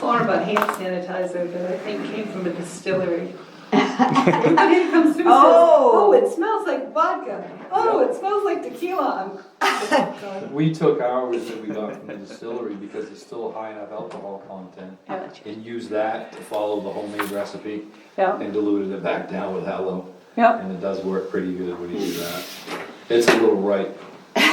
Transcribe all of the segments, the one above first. More about hand sanitizer that I think came from a distillery. I mean, it comes through, says, Oh. oh, it smells like vodka, oh, it smells like tequila. I'm- We took ours that we got from the distillery because it's still high enough alcohol content and used that to follow the homemade recipe Yeah, and diluted it back down with tallow. yeah. And it does work pretty good when you do that. It's a little ripe. I I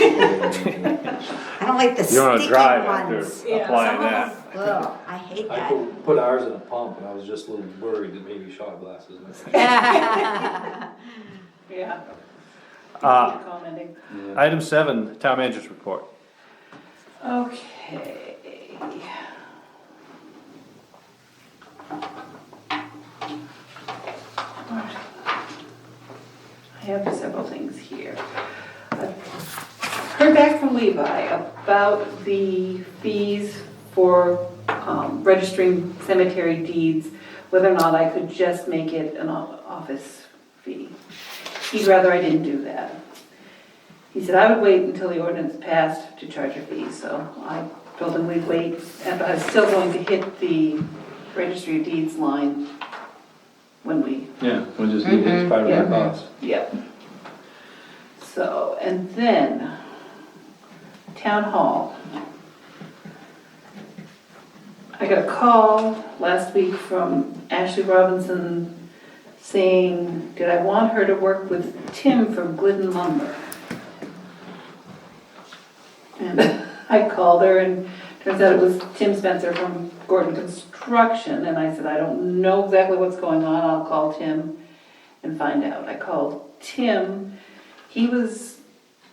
don't like the You don't wanna sticky drive after ones. Yeah, applying some of that. Ugh, I hate that. put, put ours in a pump and I was just a little worried that maybe shot glasses. might- Yeah, Uh, commenting. item seven, town manager's report. Okay. I have several things here. I've Heard back from Levi about the fees for um, registering cemetery deeds, whether or not I could just make it an o- office fee. He'd rather I didn't do that. He said I would wait until the ordinance passed to charge a fee, so I told him we'd wait, and I was still going to hit the registry of deeds line when we, Yeah, we just Mm-hmm. need it part of our cost. yep. So, and then, town hall. I got a call last week from Ashley Robinson saying, did I want her to work with Tim from Glidden lumber? And I called her and turns out it was Tim Spencer from Gordon Construction and I said, I don't know exactly what's going on, I'll call Tim and find out. I called Tim, he was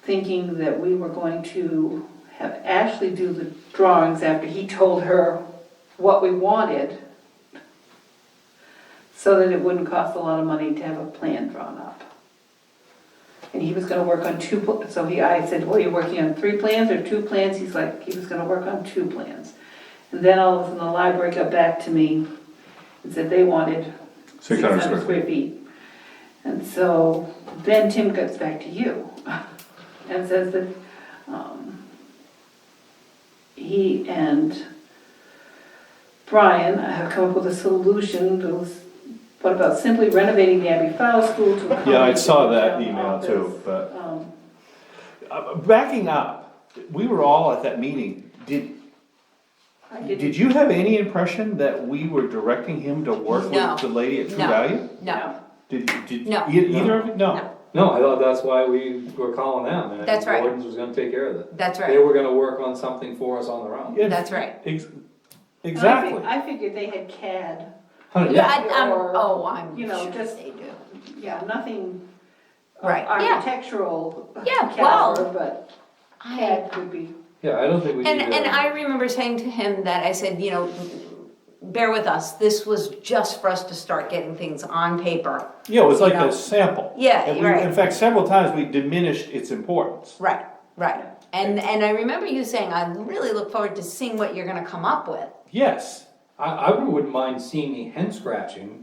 thinking that we were going to have Ashley do the drawings after he told her what we wanted so that it wouldn't cost a lot of money to have a plan drawn up. And he was gonna work on two, pl- so he, I said, well, you're working on three plans or two plans? He's like, he was gonna work on two plans. And then all of a sudden, the library got back to me and said they wanted six hundred square feet. And so then Tim gets back to you and says that, um, he and Brian have come up with a solution that was, what about simply renovating the Abbey Fowle School to accommodate Yeah, I saw the that town email office. too, but, Um, uh, backing up, we were all at that meeting. Did, I did didn't, you have any impression that we were directing him to work No. with the lady at True No. Value? No, Did, did, No. e- either of you, no? No. No, I thought that's why we were calling them and That's right. Gordon's was gonna take care of it. that's They right, were gonna work on something for us on their own. Yeah, that's right. ex- And I fig- Exactly. I figured they had CAD, Honey, Yeah, I- I'm- Or, oh, I'm you know, sure just- they do. yeah, nothing uh, Right, yeah, architectural Yeah, well, caliber, but I, CAD would be. Yeah, I don't think we need and, to. and I remember saying to him that, I said, you know, bear with us, this was just for us to start getting things on paper. Yeah, it was like No. a sample. Yeah, And we- right. In fact, several times we diminished its importance. Right, right, and, and I remember you saying, I really look forward to seeing what you're gonna come up with. Yes, I, I wouldn't mind seeing a hand scratching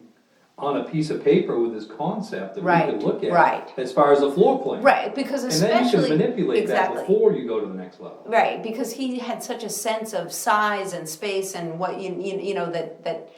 on a piece of paper with this concept that Right, we could look at. right. As far as the floor plan. Right, because And then you especially. can manipulate that exactly. before you go to the next level. Right, because he had such a sense of size and space and what you you, you know that that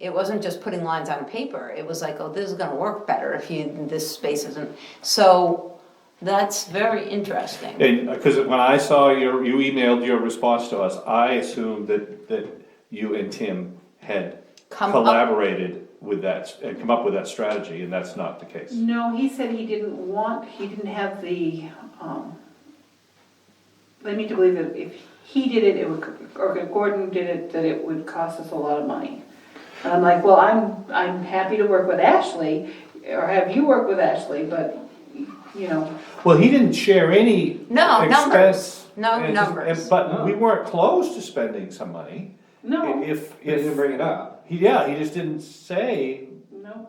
it wasn't just putting lines on paper. It was like, oh, this is going to work better if you this space isn't. So that's very interesting. and, because when I saw your, you emailed your response to us, I assumed that, that you and Tim had Come up- collaborated with that, and come up with that strategy, and that's not the case. Mm. No, he said he didn't want, he didn't have the, um, led me to believe that if he did it, it would, or if Gordon did it, that it would cost us a lot of money. And I'm like, well, I'm, I'm happy to work with Ashley, or have you work with Ashley, but, you know, Well, he didn't share any. No, expense, numbers. No and- numbers. But No. we weren't close to spending some money. no, If, They didn't if, bring it up. he- yeah, he just didn't say, no.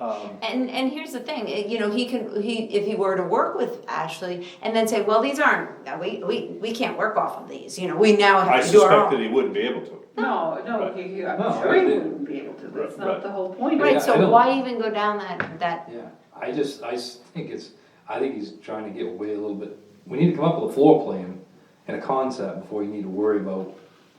um, And and here's the thing, it- you know, he can he if he were to work with Ashley and then say, well, these aren't uh, we we we can't work off of these. You know, we now have I to do our suspect own. that he wouldn't be able to. No, no, Right. he- he- I'm No, sure I he didn't. wouldn't be able to, that's Right, not right. the whole point. Right. Yeah, I so don't- why even go down that that? Yeah, I just, I s- think it's, I think he's trying to get away a little bit. We need to come up with a floor plan and a concept before you need to worry about